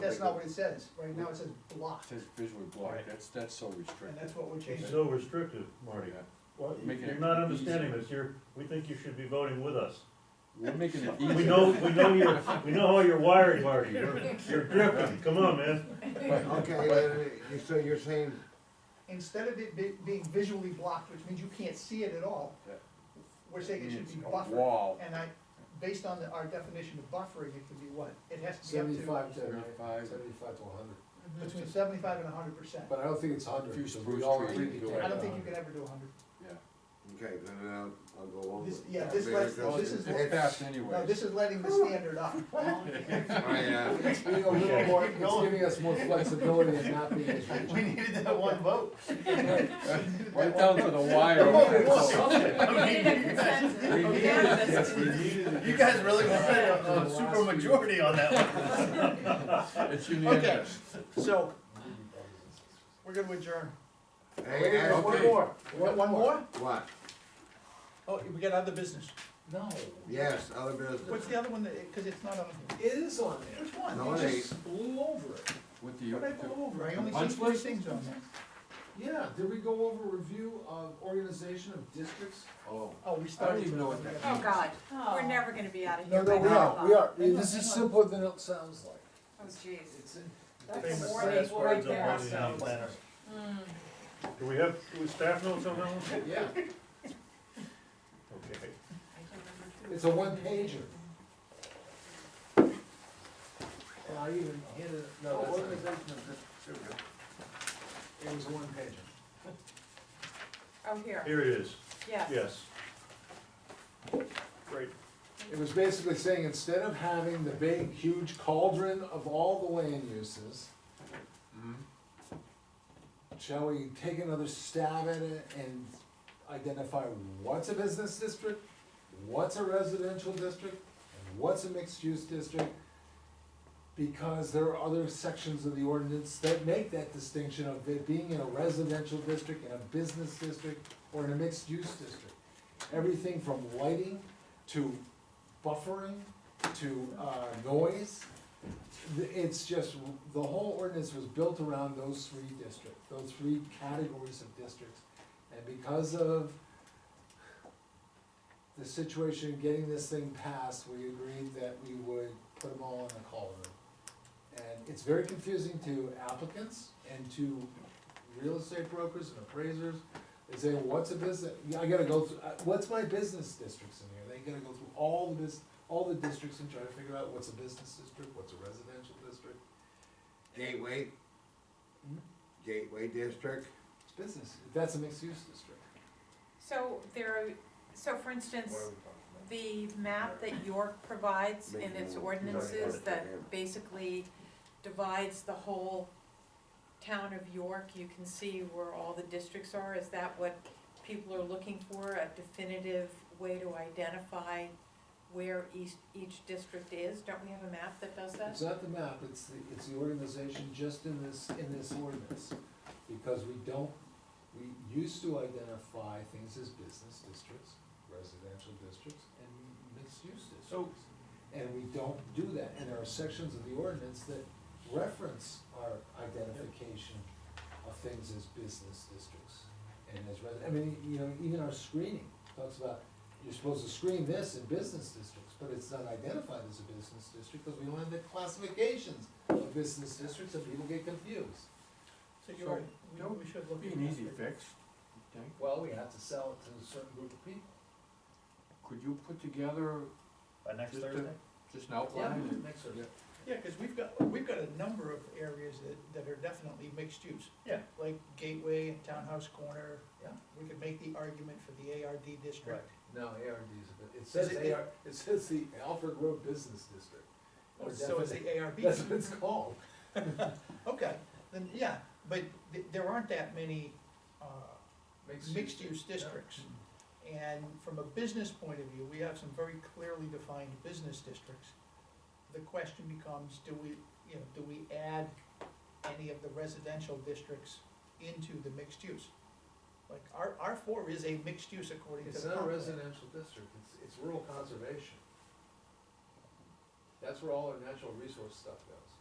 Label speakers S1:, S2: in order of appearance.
S1: that's not what it says, right now it says
S2: It
S1: blocked,
S2: says visually blocked,
S3: Right.
S2: that's, that's so
S1: and
S2: restricted.
S1: that's what we're
S3: It's
S1: changing.
S3: so restrictive, Marty.
S2: Yeah.
S3: Well, you-
S2: Making
S3: you're
S2: it
S3: not
S2: easier.
S3: understanding this, you're, we think you should be voting with us.
S2: We're making it easier.
S3: We know, we know you're, we know how you're wired, Marty, you're, you're drifting, come on, man.
S4: Okay, uh, so you're saying,
S1: Instead of it be- being visually blocked, which means you can't see it at all,
S2: Yeah.
S1: we're saying it should
S2: It's
S1: be
S2: a
S1: buffered.
S2: Wall,
S1: And I, based on the- our definition of buffering, it can be what? It has to be up
S4: seventy-five to,
S2: Seventy-five.
S4: seventy-five to hundred,
S1: to between seventy-five and hundred percent.
S4: but I don't think it's hundred.
S2: Few
S4: because we
S2: spruce
S4: all
S2: trees
S4: agreed to
S2: go
S4: take
S2: in.
S1: I don't think you
S4: 100.
S1: can ever do hundred.
S2: yeah.
S5: Okay, then I'll, I'll go along
S1: This-
S5: with.
S1: yeah, this
S5: Maybe
S1: lets-
S5: that's
S1: this
S5: it.
S1: is-
S2: It's fast
S1: No,
S2: anyways.
S1: this is letting the standard up.
S5: I, uh,
S4: It's being a little more, it's giving us more flexibility and not being as rigid.
S6: We needed that one vote.
S2: Right down to the wire. We need it. Yes, we need it.
S6: You guys really wanted a, a super majority on that one.
S2: It's unanimous.
S1: So, we're gonna adjourn.
S5: hey, hey,
S4: One
S5: okay.
S4: more,
S1: We got one more?
S5: What?
S1: Oh, we got other business.
S4: No,
S5: Yes, other business.
S1: What's the other one that, cause it's not on here.
S4: it is on there.
S1: Which one?
S5: No,
S1: You
S5: it
S1: just
S5: ain't.
S4: Blew over it.
S2: What do you,
S1: What did I go over? I only
S2: Punch
S1: see three
S2: list?
S1: things on there.
S4: Yeah, did we go over review of organization of districts?
S5: Oh,
S1: Oh, we
S2: I
S1: started.
S2: don't even know what that
S7: Oh,
S2: means.
S7: God, we're never gonna be out of
S4: No,
S7: here
S4: no,
S7: by
S4: we
S7: now.
S4: are, we are, this is simpler than it sounds like.
S7: Oh, jeez.
S4: It's,
S3: Famous
S7: That's a warning
S3: last
S7: right
S3: words of
S7: there.
S3: Marty Nally.
S7: Mm.
S3: Do we have, do we staff notes on that one?
S4: yeah,
S3: Okay.
S4: it's a one pager. And I even handed, it- no, that's not it. It was a one pager.
S7: Oh, here,
S3: Here it is,
S7: yes.
S3: yes. Great.
S4: It was basically saying, instead of having the big, huge cauldron of all the land uses, shall we take another stab at it and identify what's a business district, what's a residential district, and what's a mixed-use district? Because there are other sections of the ordinance that make that distinction of it being in a residential district, in a business district, or in a mixed-use district. Everything from lighting to buffering to uh, noise. Th- It's just, the whole ordinance was built around those three districts, those three categories of districts. And because of the situation, getting this thing passed, we agreed that we would put them all in a column. And it's very confusing to applicants and to real estate brokers and appraisers. They say, what's a business, yeah, I gotta go through, uh, what's my business districts in here? They gotta go through all the bus, all the districts and try to figure out what's a business district, what's a residential district.
S5: Gateway?
S4: Hmm?
S5: Gateway District?
S4: It's business, that's a mixed use district.
S7: So there, are- so for instance, the map that York provides in its ordinances that basically divides the whole town of York, you can see where all the districts are, is that what people are looking for? A definitive way to identify where each, each district is? Don't we have a map that does that?
S4: It's not the map, it's the, it's the organization just in this, in this ordinance. Because we don't, we used to identify things as business districts, residential districts, and mixed-use districts. And we don't do that, and there are sections of the ordinance that reference our identification of things as business districts. And as resi, I mean, you know, even our screening talks about, you're supposed to screen this in business districts, but it's not identified as a business district, because we don't have the classifications of business districts, and people get confused.
S1: So you're right, we, we should look.
S2: Be
S1: at
S2: an
S1: that.
S2: easy fix, you think?
S4: Well, we have to sell it to a certain group of people.
S2: Could you put together
S6: By next
S2: Just a-
S6: Thursday?
S2: just an outline? and-
S4: Next
S2: Yeah.
S1: Yeah, cause we've got, we've got a number of areas that, that are definitely mixed use.
S6: Yeah.
S1: Like Gateway and Townhouse Corner.
S6: Yeah.
S1: We could make the argument for the ARD district.
S4: No, ARD is, a bit- it says
S1: Is it-
S4: AR, it says the Alfred Road Business District. Or
S1: So is
S4: definite-
S1: the ARB.
S4: That's what Oh, it's called.
S1: Okay, then, yeah, but th- there aren't that many, uh, mixed-use districts. And from a business point of view, we have some very clearly defined business districts. The question becomes, do we, you know, do we add any of the residential districts into the mixed use? Like, R, R four is a mixed use according to
S4: It's
S1: the.
S4: not a
S1: comp plan.
S4: residential district, it's, it's rural conservation. That's where all our natural resource stuff goes.